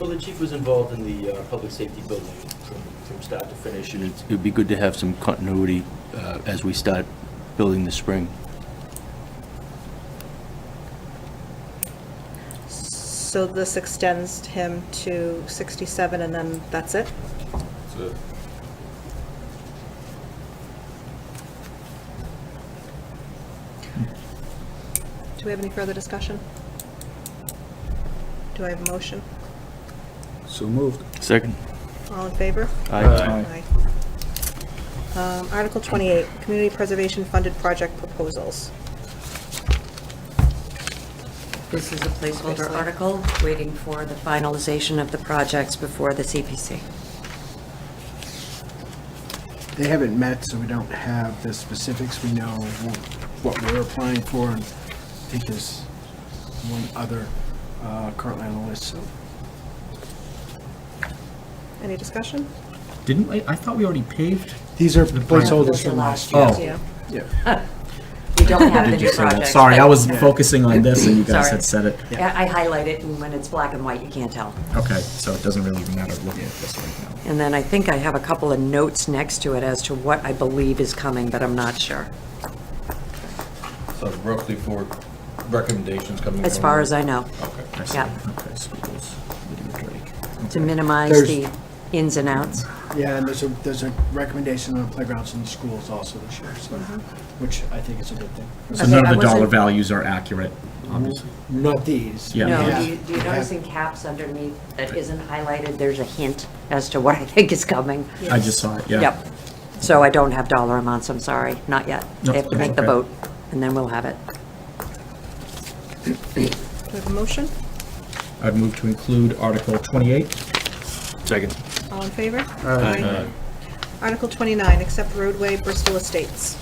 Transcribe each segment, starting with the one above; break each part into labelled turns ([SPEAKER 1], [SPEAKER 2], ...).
[SPEAKER 1] Well, the chief was involved in the uh, public safety building from from start to finish, and it's- it'd be good to have some continuity uh, as we start building this spring.
[SPEAKER 2] So this extends him to 67, and then that's it?
[SPEAKER 3] That's it.
[SPEAKER 2] Do we have any further discussion? Do I have a motion?
[SPEAKER 4] So moved.
[SPEAKER 1] Second.
[SPEAKER 2] All in favor?
[SPEAKER 4] Aye.
[SPEAKER 2] Aye. Um, Article 28, Community Preservation Funded Project Proposals.
[SPEAKER 5] This is a placeholder
[SPEAKER 2] Basically.
[SPEAKER 5] article, waiting for the finalization of the projects before the CPC.
[SPEAKER 4] They haven't met, so we don't have the specifics. We know wh- what we're applying for, and I think there's one other uh, currently on the list, so.
[SPEAKER 2] Any discussion?
[SPEAKER 6] Didn't, I, I thought we already paved?
[SPEAKER 4] These are
[SPEAKER 6] The
[SPEAKER 4] placeholders
[SPEAKER 5] Those are
[SPEAKER 4] from last
[SPEAKER 5] last
[SPEAKER 4] year.
[SPEAKER 6] Oh.
[SPEAKER 2] Yeah.
[SPEAKER 4] Yeah.
[SPEAKER 5] We don't have the
[SPEAKER 1] Did you
[SPEAKER 5] new
[SPEAKER 1] say that?
[SPEAKER 5] projects.
[SPEAKER 6] Sorry, I
[SPEAKER 5] but-
[SPEAKER 6] was focusing on this and you guys
[SPEAKER 5] Sorry.
[SPEAKER 6] had said it.
[SPEAKER 5] Yeah, I highlight it, and when it's black and white, you can't tell.
[SPEAKER 6] Okay, so it doesn't really matter looking at this right now.
[SPEAKER 5] And then I think I have a couple of notes next to it as to what I believe is coming, but I'm not sure,
[SPEAKER 3] So roughly four recommendations coming.
[SPEAKER 5] as
[SPEAKER 3] from-
[SPEAKER 5] far as I know,
[SPEAKER 3] Okay.
[SPEAKER 6] I see.
[SPEAKER 5] Yeah.
[SPEAKER 6] Okay, so it was Lydia Drake.
[SPEAKER 5] to
[SPEAKER 6] Okay.
[SPEAKER 5] minimize
[SPEAKER 4] There's-
[SPEAKER 5] the ins and outs.
[SPEAKER 4] Yeah, and there's a, there's a recommendation on playgrounds in the schools also this year, so, which I think is a good thing.
[SPEAKER 6] So none
[SPEAKER 5] I
[SPEAKER 6] of the dollar
[SPEAKER 5] wasn't-
[SPEAKER 6] values are accurate, obviously.
[SPEAKER 4] Not these.
[SPEAKER 6] Yeah.
[SPEAKER 5] No,
[SPEAKER 4] Yeah.
[SPEAKER 5] do you- do you notice in caps underneath that isn't highlighted, there's a hint as to what I think is coming?
[SPEAKER 6] I just saw it, yeah.
[SPEAKER 5] Yep. So I don't have dollar amounts, I'm sorry, not yet.
[SPEAKER 6] No,
[SPEAKER 5] They have to
[SPEAKER 6] that's
[SPEAKER 5] make the
[SPEAKER 6] okay.
[SPEAKER 5] vote, and then we'll have it.
[SPEAKER 2] Do we have a motion?
[SPEAKER 6] I've moved to include Article 28.
[SPEAKER 1] Second.
[SPEAKER 2] All in favor? Aye. Article 29, Accept Roadway Bristol Estates.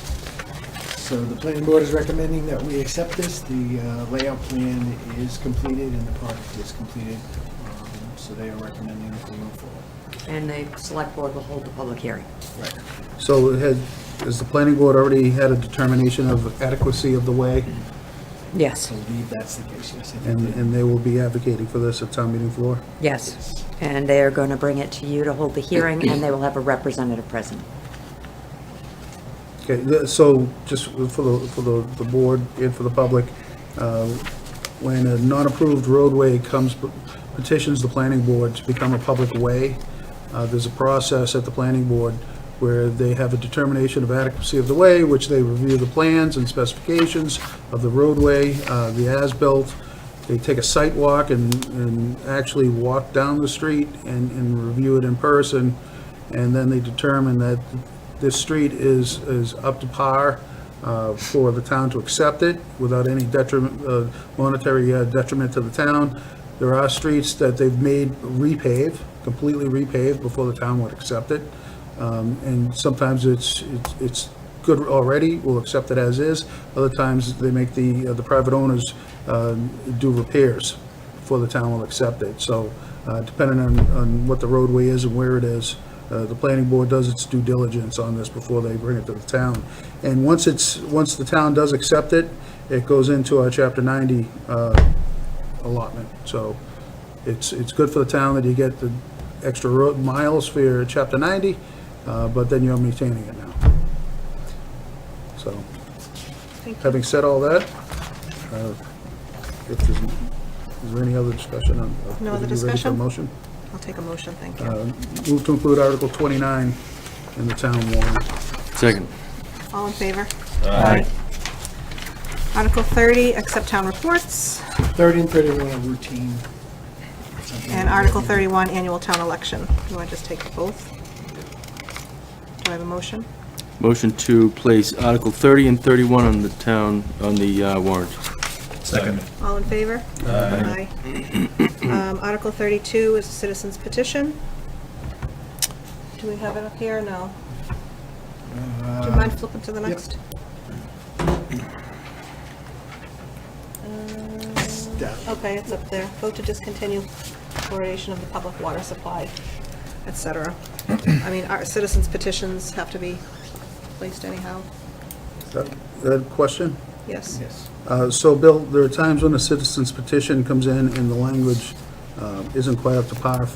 [SPEAKER 4] So the planning board is recommending that we accept this. The uh, layout plan is completed and the project is completed. Um, So they are recommending that we move forward.
[SPEAKER 5] And the select board will hold the public hearing.
[SPEAKER 7] So it had, has the planning board already had a determination of adequacy of the way?
[SPEAKER 5] Yes,
[SPEAKER 4] I believe that's the case, yes. I think
[SPEAKER 7] And, and they will be advocating for this at town meeting floor?
[SPEAKER 5] yes. And they are going to bring it to you to hold the hearing, and they will have a representative present.
[SPEAKER 7] Okay, the- so just for the, for the, the board and for the public, uh, when a non-approved roadway comes, petitions the planning board to become a public way, uh, there's a process at the planning board where they have a determination of adequacy of the way, which they review the plans and specifications of the roadway, uh, the as-built. They take a site walk and, and actually walk down the street and, and review it in person. And then they determine that this street is, is up to par uh, for the town to accept it without any detriment, uh, monetary uh, detriment to the town. There are streets that they've made repave, completely repaved before the town would accept it. Um, And sometimes it's, it's- it's good already, we'll accept it as is. Other times, they make the, uh, the private owners uh, do repairs before the town will accept it. So uh, depending on, on what the roadway is and where it is, uh, the planning board does its due diligence on this before they bring it to the town. And once it's, once the town does accept it, it goes into our Chapter 90 uh, allotment. So it's, it's good for the town that you get the extra road miles for your Chapter 90, uh, but then you're maintaining it now. So,
[SPEAKER 2] Thank you.
[SPEAKER 7] having said all that, uh, if there's, is there any other discussion on?
[SPEAKER 2] No other
[SPEAKER 7] Are you ready for a
[SPEAKER 2] discussion?
[SPEAKER 7] Motion?
[SPEAKER 2] I'll take a motion, thank you.
[SPEAKER 7] Uh, Move to include Article 29 in the town warrant.
[SPEAKER 1] Second.
[SPEAKER 2] All in favor? Aye. Article 30, accept town reports,
[SPEAKER 4] 30 and 31 are routine. something
[SPEAKER 2] and
[SPEAKER 4] that-
[SPEAKER 2] Article 31, annual town election. You want to just take both? Do I have a motion?
[SPEAKER 1] Motion to place Article 30 and 31 on the town, on the uh, warrant.
[SPEAKER 6] Second.
[SPEAKER 2] All in favor? Aye. Um, Article 32 is a citizen's petition. Do we have it up here? No. Do you
[SPEAKER 4] Uh,
[SPEAKER 2] mind flipping to the
[SPEAKER 4] yep.
[SPEAKER 2] next? Um,
[SPEAKER 4] Stuff.
[SPEAKER 2] Okay, it's up there. Vote to discontinue fluoridation of the public water supply, et cetera. I mean, our citizens petitions have to be placed anyhow.
[SPEAKER 7] That- That question?
[SPEAKER 2] Yes.
[SPEAKER 4] Yes.
[SPEAKER 7] Uh, So, Bill, there are times when a citizen's petition comes in and the language uh, uh, isn't quite up to par